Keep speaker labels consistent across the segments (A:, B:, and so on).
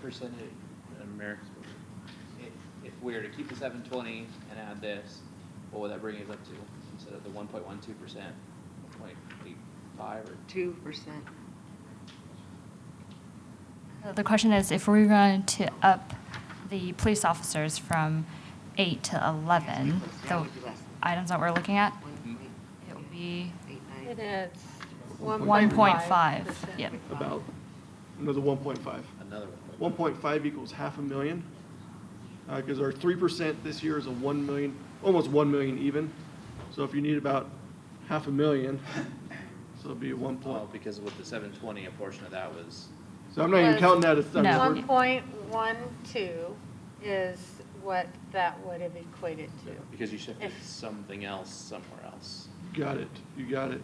A: percentage, Madam Mayor? If, if we were to keep the seven twenty and add this, what would that bring us up to instead of the one point one two percent? Point eight five or?
B: two percent.
C: Uh, The question is, if we're going to up the police officers from eight to 11, the items that we're looking at, it would be
D: And it's
C: 1.5.
D: 1.5.
C: Yep.
E: About another 1.5.
A: Another one.
E: 1.5 equals half a million, because our 3% this year is a 1 million, almost 1 million even. So if you need about half a million, so it'll be a 1 point.
A: Well, because with the seven twenty, a portion of that was,
E: So I'm not even
D: Was-
E: counting that as, I'm
C: No.
E: just-
D: One point one two is what that would have equated to.
A: because you shifted
D: If-
A: something else somewhere else.
E: you got it, you got it.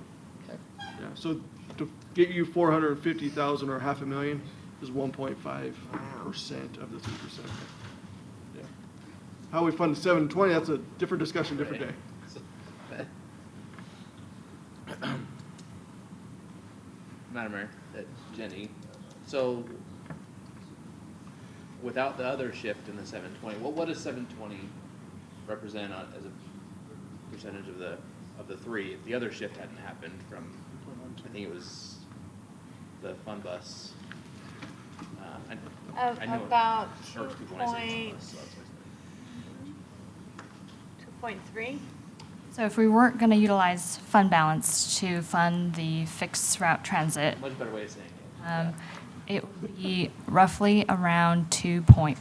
E: Yeah, so to get you 450,000 or half a million is 1.5% of the 3%. Yeah. How we fund the 720, that's a different discussion, different day.
A: Right. Madam Mayor, uh, Jenny, so without the other shift in the seven twenty, what, what does seven twenty represent on, as a percentage of the, of the three? If the other shift hadn't happened from, I think it was the fun bus. uh, I-
D: Of
A: I know it-
D: about
A: or
D: two
A: people when I say fun
D: point,
A: bus, so that's what I said.
D: two point three?
C: So if we weren't going to utilize fund balance to fund the fixed route transit,
A: Much better way of saying it.
C: um, it would be roughly around 2.1.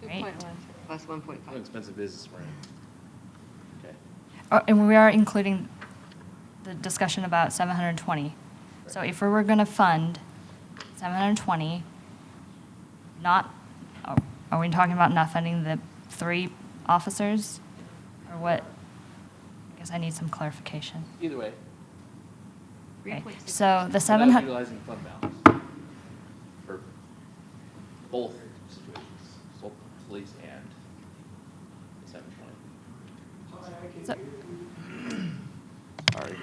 D: Two
C: Right.
D: point one three.
B: Plus one point
A: What an
B: five.
A: expensive business we're in. Okay.
C: Oh, And we are including the discussion about 720. So if we were going to fund 720, not, are- are we talking about not funding the three officers? Or what? I guess I need some clarification.
A: Either way.
C: Okay, So Oh, the
A: without
C: 700.
A: Utilizing fund balance for both situations, both police and the seven twenty.
C: so-
A: Sorry.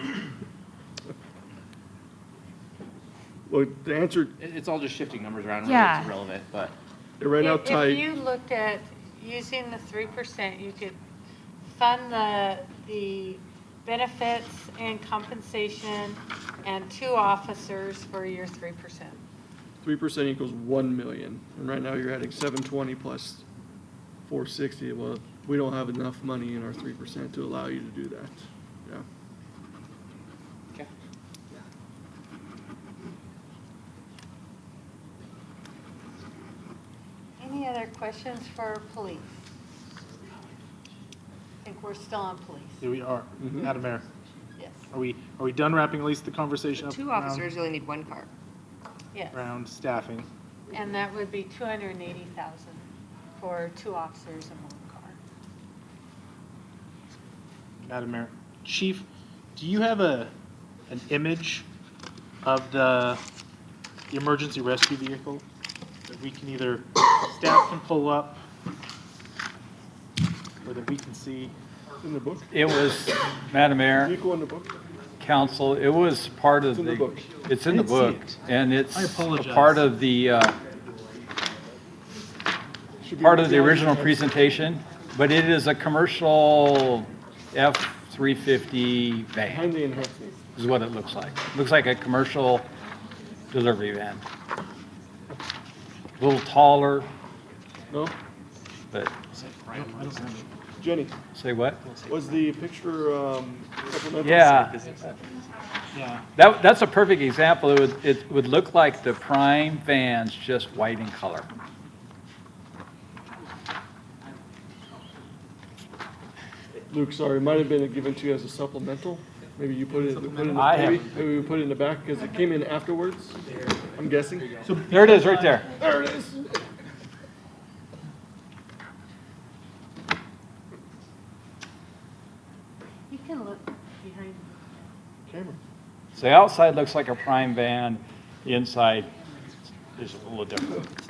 E: Well, the answer,
A: It, it's all just shifting numbers around, really,
C: Yeah.
A: it's irrelevant, but
E: right now,
D: If-
E: Ty.
D: If you looked at using the three percent, you could fund the, the benefits and compensation and two officers for your three percent.
E: Three percent equals one million, and right now you're adding seven twenty plus four sixty, well, we don't have enough money in our three percent to allow you to do that, yeah.
A: Okay.
D: Any other questions for police? I think we're still on police.
F: Here we are, Madam Mayor.
D: Yes,
F: Are we, are we done wrapping at least the conversation up
B: Two
F: around-
B: officers really need one car.
D: yes.
F: around staffing?
D: And that would be 280,000 for two officers and one car.
F: Madam Mayor, Chief, do you have a, an image of the, the emergency rescue vehicle? That we can either, staff can pull up, or that we can see?
E: In the book?
G: It was, Madam Mayor,
E: Vehicle in the book?
G: Council, it was part of
E: It's in the
G: the,
E: book.
G: it's in the
F: I didn't
G: book,
F: see it.
G: and it's
F: I
G: a
F: apologize.
G: part of the, uh,
E: Should be-
G: part of the original presentation, but it is a commercial F-350
E: Behind
G: van,
E: the enhancement.
G: is what it looks like. Looks like a commercial delivery van. A Little taller,
E: no,
G: but,
E: Jenny,
G: say what?
E: was the picture, um, supplemental?
G: Yeah,
F: Yeah.
G: that, that's a perfect example. It would, it would look like the prime van's just white in color.
E: Luke, sorry, it might have been given to you as a supplemental, maybe you put it, we put it in,
G: I
E: the- maybe, maybe we put it in the back, cause it came in afterwards, I'm guessing.
G: There it is, right there.
E: There it is.
D: You can look behind.
E: Camera.
G: So the outside looks like a prime van, the inside is a little different.